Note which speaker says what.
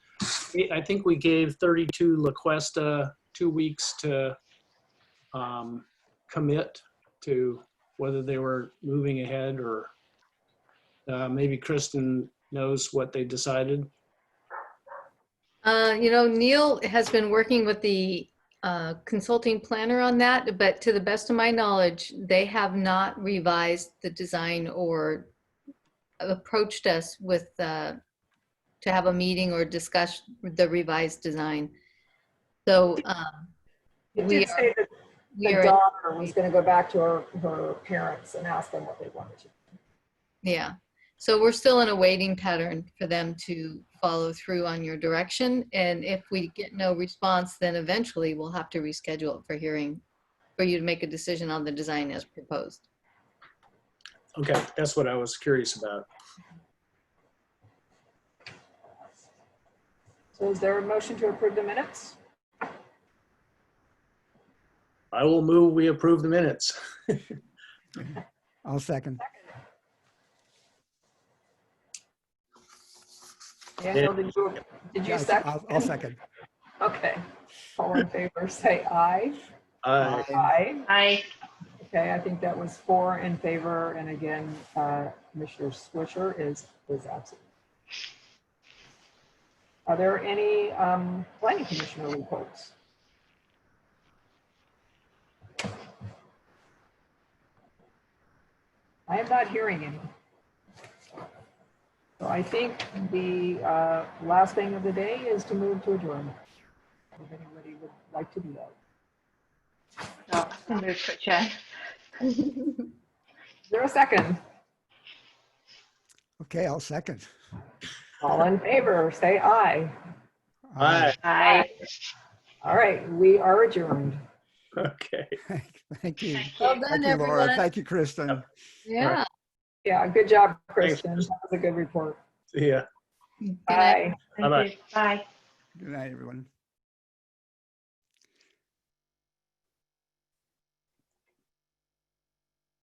Speaker 1: I think we gave 32 La Cuesta two weeks to um, commit to whether they were moving ahead or uh, maybe Kristen knows what they decided.
Speaker 2: Uh, You know, Neil has been working with the uh, consulting planner on that, but to the best of my knowledge, they have not revised the design or approached us with, uh, to have a meeting or discuss the revised design. So um,
Speaker 3: It
Speaker 2: We
Speaker 3: did say that
Speaker 2: we
Speaker 3: the
Speaker 2: are,
Speaker 3: daughter was gonna go back to her, her parents and ask them what they wanted to.
Speaker 2: yeah. So we're still in a waiting pattern for them to follow through on your direction. And if we get no response, then eventually we'll have to reschedule it for hearing, for you to make a decision on the design as proposed.
Speaker 1: Okay, that's what I was curious about.
Speaker 3: So is there a motion to approve the minutes?
Speaker 1: I will move, we approve the minutes.
Speaker 4: I'll second.
Speaker 3: Daniel, did you, did you
Speaker 4: Yeah,
Speaker 3: second?
Speaker 4: I'll- I'll second.
Speaker 3: Okay. All in favor, say aye.
Speaker 1: Aye.
Speaker 3: Aye.
Speaker 5: Aye.
Speaker 3: Okay, I think that was four in favor, and again, uh, Commissioner Swisher is, is absent. Are there any um, planning commissioner reports? I am not hearing any. So I think the uh, last thing of the day is to move to adjourn. If anybody would like to do that.
Speaker 5: No, I'll move to adjourn.
Speaker 3: Is there a second?
Speaker 4: Okay, I'll second.
Speaker 3: All in favor, say aye.
Speaker 1: Aye,
Speaker 5: Aye.
Speaker 3: All right, we are adjourned.
Speaker 1: okay.
Speaker 4: Thank you.
Speaker 5: Thank
Speaker 2: Well
Speaker 5: you.
Speaker 2: done,
Speaker 4: Thank you, Laura.
Speaker 2: everyone.
Speaker 4: Thank you, Kristen.
Speaker 2: Yeah.
Speaker 3: Yeah, good job,
Speaker 1: Thanks.
Speaker 3: Kristen. That was a good report.
Speaker 1: See ya.
Speaker 2: Good night.
Speaker 3: Bye.
Speaker 5: Thank you. Bye.
Speaker 4: Good night, everyone.